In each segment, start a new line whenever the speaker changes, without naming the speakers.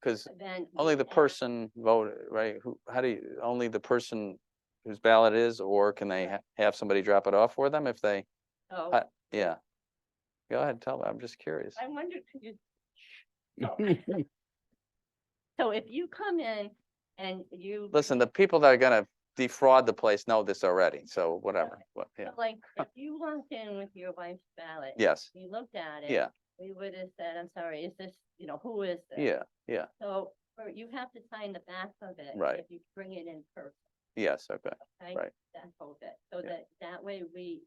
because
event.
only the
app.
person voted, right? Who, how do you, only the person whose ballot is, or can they ha- have somebody drop it off for them if they,
Oh,
I- yeah? Go ahead, tell me, I'm just curious.
I wonder, could you? So- So if you come in and you.
Listen, the people that are gonna defraud the place know this already, so whatever, what, yeah,
so Like, if you walked in with your wife's ballot.
yes,
We looked at it.
yeah,
We would have said, I'm sorry, is this, you know, who is this?
yeah,
So, or you have to sign the back of it.
Right.
If you bring it in person,
yes, okay,
okay?
Right.
That whole bit, so
Yeah.
that, that way we,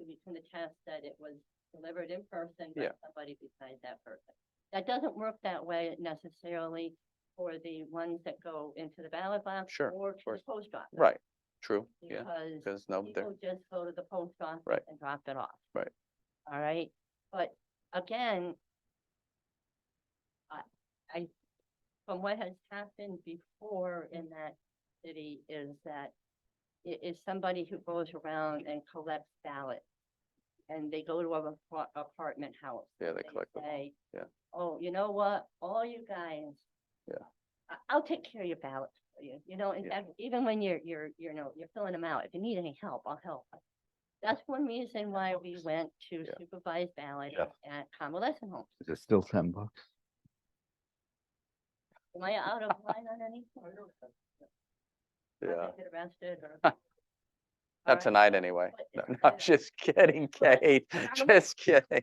we can attest that it was delivered in person by
Yeah.
somebody besides that person. That doesn't work that way necessarily for the ones that go into the ballot box.
Sure,
Or to the
course.
post office.
right, true, yeah,
Because
because no, there,
People just go to the post office.
Right.
And drop it off.
Right.
All right, but again. I, I, from what has happened before in that city is that. It is somebody who goes around and collects ballots. And they go to an apart- apartment house
yeah, they
they
collect them.
say,
Yeah.
Oh, you know what, all you guys.
Yeah.
I, I'll take care of your ballots for you, you know, in
Yeah.
fact, even when you're, you're, you know, you're filling them out, if you need any help, I'll help. That's one reason why we went to
Yeah.
supervised ballot
Yeah.
at convalescent homes.
Is it still ten bucks?
Am I out of line on any? I'm
Yeah,
gonna Get arrested or?
not
Alright,
tonight anyway.
but
No,
it's
no, I'm
better.
just kidding, Kate,
I'm-
just kidding.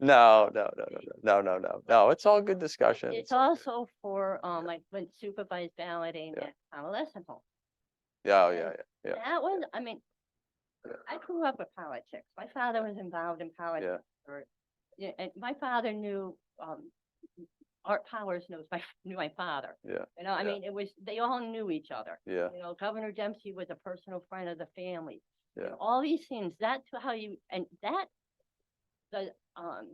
No, no, no, no, no, no, no, no, it's all good discussion.
It's
all good.
also for, um, like, when supervised balloting
Yeah.
at convalescent homes.
Yeah, oh, yeah, yeah, Yeah.
That was, I mean, I grew up with politics. My father was involved in politics. for- Yeah, and my father knew, um, Art Powers knows my, knew my father.
Yeah,
You know, I
yeah.
mean, it was, they all knew each other.
yeah,
You know, Governor Dempsey was a personal friend of the family. You know,
Yeah.
All these things, that's how you, and that, the, um,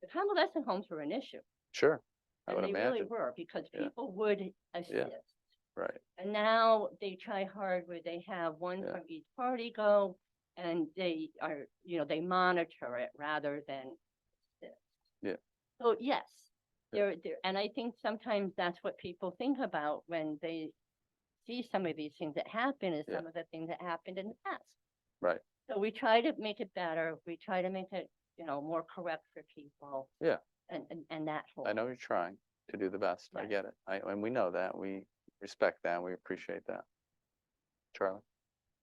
the convalescent homes were an issue.
sure, I
And
would
they really
imagine,
were, because
Yeah.
people would assist.
right.
And now they try hard where they have one
Yeah.
from each party go and they are, you know, they monitor it rather than this.
Yeah.
So yes,
Yeah.
there, there, and I think sometimes that's what people think about when they see some of these things that happen is
Yeah.
some of the things that happened in the past.
Right.
So we try to make it better. We try to make it, you know, more correct for people.
Yeah.
And, and, and that whole.
I know you're trying to do the best. I
Right.
get it. I, and we know that. We respect that. We appreciate that. Charlie?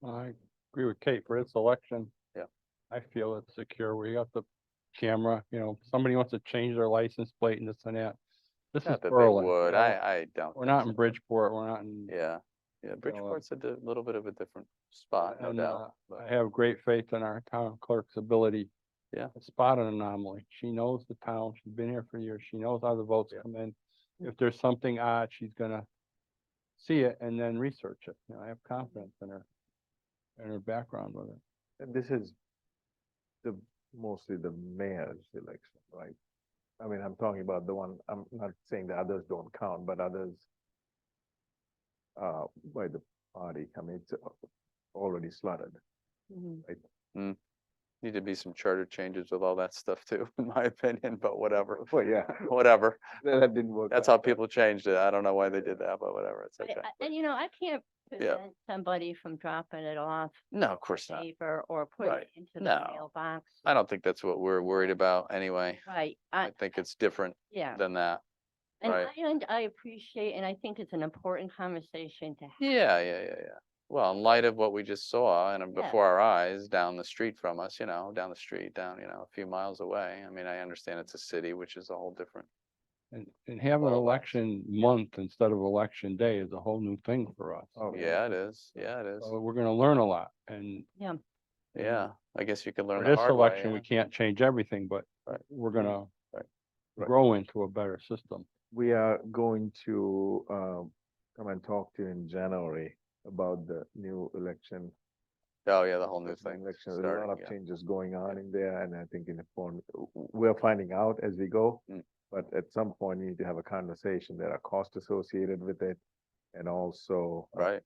I agree with Kate for this election.
Yeah.
I feel it's secure. We got the camera, you know, somebody wants to change their license plate and this and that. This is
Not that they
Berlin. you
would.
know,
I, I don't.
We're
think
not
so.
in Bridgeport, we're not in.
Yeah, yeah. Bridgeport's a di- little bit of a different spot, um no
and,
doubt.
uh, I have great faith in our town clerk's ability.
Yeah.
to Spot an anomaly. She knows the town. She's been here for years. She knows how the votes
Yeah.
come in. If there's something odd, she's gonna see it and then research it. You know, I have confidence in her, in her background with it.
And this is the, mostly the mayor's election, right? I mean, I'm talking about the one, I'm not saying the others don't count, but others uh, by the party, I mean, it's al- already slotted.
Need to be some charter changes with all that stuff too, in my opinion, but whatever,
Well, yeah,
whatever.
that that didn't work.
That's how
out, but-
people changed it. I don't know why they did that, but whatever. It's
I-
okay.
I- And you know, I can't prevent somebody from dropping it off
No, of course not.
paper or putting
Right.
it into the
No.
mailbox.
I don't think that's what we're worried about anyway.
Right,
I
I,
think it's different
yeah,
than that.
and I,
right.
und- I appreciate, and I think it's an important conversation to have.
Yeah, yeah, yeah, yeah. Well, in light of what we just saw and uh,
Yeah.
before our eyes, down the street from us, you know, down the street, down, you know, a few miles away. I mean, I understand it's a city, which is a whole different,
And, and have an
Well,
election month instead of election day is a whole new thing for us.
Oh,
yeah, it is, yeah, it is.
So we're gonna learn a lot and
Yeah, I guess you can learn
for
the
this
hard way.
election,
yeah.
we can't change everything, but
Right.
we're gonna
Right.
Right.
grow into a better system.
We are going to um, come and talk to you in January about the new election.
Oh, yeah, the whole new
election,
thing.
Election, there's a
starting,
lot
yeah.
of changes going on in there, and I think in the form, w- w- we're finding out as we go.
Mm.
But at some point, you need to have a conversation. There are costs associated with it, and also uh,
Right,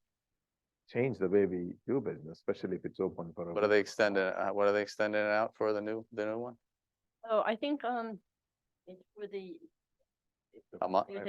change the way we do business, especially if it's open for. a
what are they
week.
extending, uh, what are they extending it out for the new, the new one?
So I think, um, it's for the,
A month?
there's